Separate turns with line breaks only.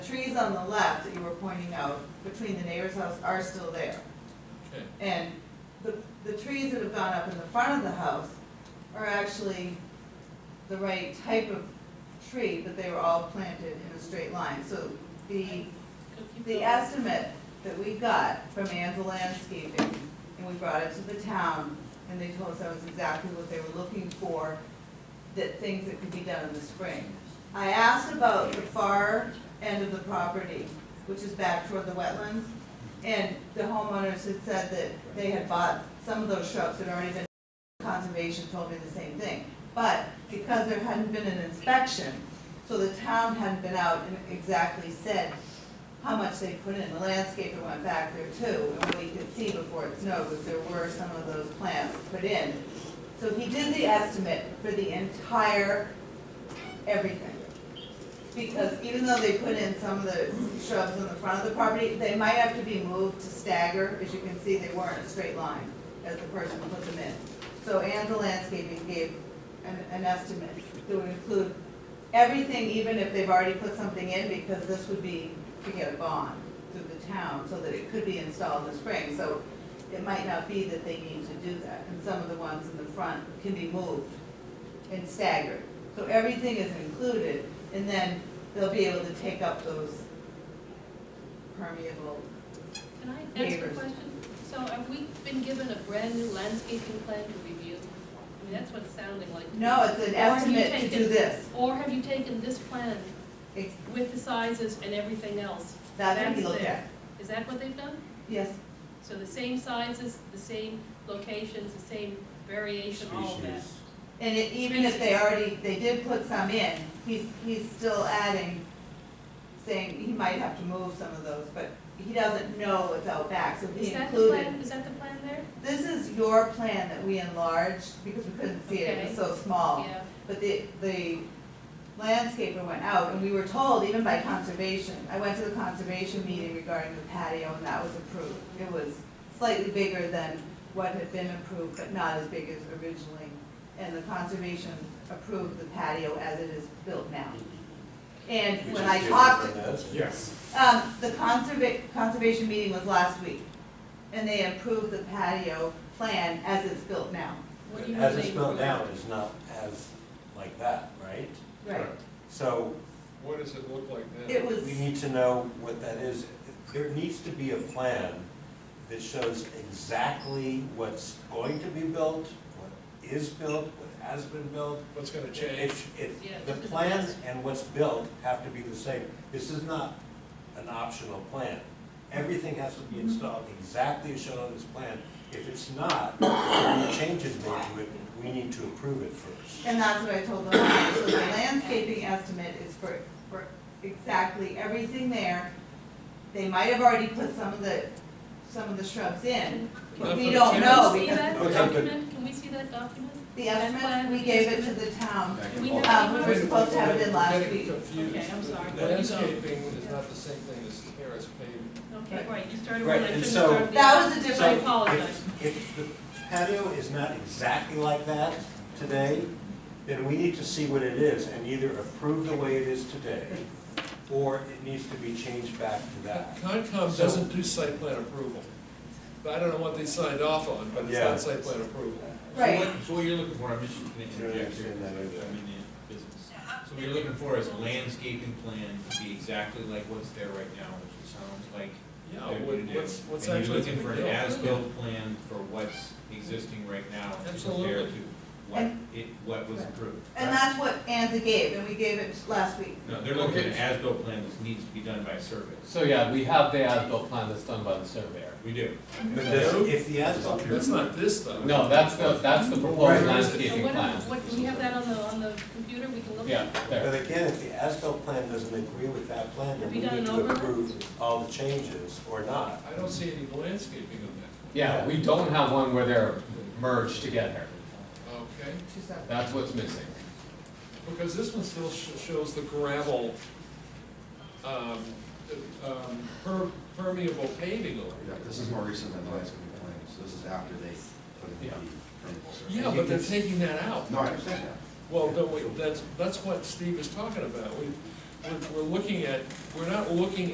trees on the left that you were pointing out between the neighbor's house are still there.
Okay.
And the, the trees that have gone up in the front of the house are actually the right type of tree, but they were all planted in a straight line. So the, the estimate that we got from Anza Landscaping, and we brought it to the town, and they told us that was exactly what they were looking for, that things that could be done in the spring. I asked about the far end of the property, which is back toward the wetlands, and the homeowners had said that they had bought some of those shrubs that had already been, conservation told me the same thing. But because there hadn't been an inspection, so the town hadn't been out and exactly said how much they put in. The landscaper went back there too, and we could see before it snowed that there were some of those plants put in. So he did the estimate for the entire everything. Because even though they put in some of the shrubs in the front of the property, they might have to be moved to stagger. As you can see, they weren't a straight line as the person put them in. So Anza Landscaping gave an, an estimate that would include everything, even if they've already put something in, because this would be to get a bond through the town so that it could be installed in the spring. So it might not be that they need to do that, and some of the ones in the front can be moved and staggered. So everything is included, and then they'll be able to take up those permeable,
Can I ask a
Neighbors.
question? So have we been given a brand-new landscaping plan to review? I mean, that's what it's sounding like.
no, it's an
Or have you
estimate to do
taken-
this.
Or have you taken this plan
Ex-
with the sizes and everything else?
That's what he
That's
looked
there.
at.
Is that what they've done?
Yes,
So the same sizes, the same locations, the same variation, all of that?
Species.
and it- even if they
Species.
already, they did put some in, he's, he's still adding, saying he might have to move some of those, but he doesn't know what's out back, so
Is
he
that the
included.
plan, is that the plan there?
This is your plan that we enlarged, because we couldn't see it, it was so small.
Yeah,
But the, the landscaper went out, and we were told, even by conservation, I went to the conservation meeting regarding the patio, and that was approved. It was slightly bigger than what had been approved, but not as big as originally. And the conservation approved the patio as it is built now. And when I talked,
Yes.
um, the conserva- conservation meeting was last week, and they approved the patio plan as it's built now.
what do you mean?
As it's
they
built
improved?
now, it's not as like that, right?
Right.
So
What does it look like now?
It was,
we need to know what that is. There needs to be a plan that shows exactly what's going to be built, what is built, what has been built.
What's gonna change?
uh, If, if,
Yeah.
the plan and what's built have to be the same. This is not an optional plan. Everything has to be installed exactly as shown on this plan. If it's not, if changes made to it, we need to approve it first.
and that's what I told them, so the landscaping estimate is for, for exactly everything there. They might have already put some of the, some of the shrubs in, but we don't know,
Can we see
because
that
Okay, good.
document? Can we see that document?
the estimate, we gave it to the town.
We
Um,
have-
we were supposed to have it in last
Getting
week.
confused.
Okay, I'm sorry.
Landscaping is not the same thing as terrace paving.
Okay, right, you started
Right,
one, I shouldn't
and
have
so-
started the
That
other.
was a
So
I
different,
apologize.
if, if the patio is not exactly like that today, then we need to see what it is and either approve the way it is today, or it needs to be changed back to that.
Concom
So-
doesn't do site plan approval. But I don't know what they signed off on, but it's
Yeah.
not site plan approval.
right.
So what, so what you're looking for, I'm just gonna
Sure, I
interject here,
understand that.
because I'm in the business. So what you're looking for is a landscaping plan to be exactly like what's there right now, which it sounds like
Yeah,
they're
what-
gonna do.
what's, what's
And you're
actually
looking
being
for
built.
an as-built plan for what's existing right now and compared
Absolutely.
to what
And-
it, what was approved.
And that's what Anza gave, and we gave it last week.
No, they're looking at an
Okay.
as-built plan that needs to be done by survey.
So yeah, we have the as-built plan that's done by the surveyor.
We do.
But does- if the asphalt.
That's not this though.
No, that's the, that's the proposed
Right.
So
landscaping
what, um,
plan.
what, do we have that on the, on the computer, we can look at?
Yeah,
But
there.
again, if the asphalt plan doesn't agree with that plan,
Have
then we
you done
need
an
to
overlay?
approve all the changes or not.
I don't see any landscaping on
Yeah, we don't have one where they're merged together.
that, okay?
She said.
That's what's missing.
Because this one still sh- shows the gravel, um, um, per- permeable paving on
Yeah,
it.
this is more recent than the last couple of claims, so this is after they put in
Yeah.
the permeable surface.
Yeah, but they're taking that out.
No, I understand that.
Well, don't we, that's, that's what Steve is talking about. We, we're, we're looking at, we're not looking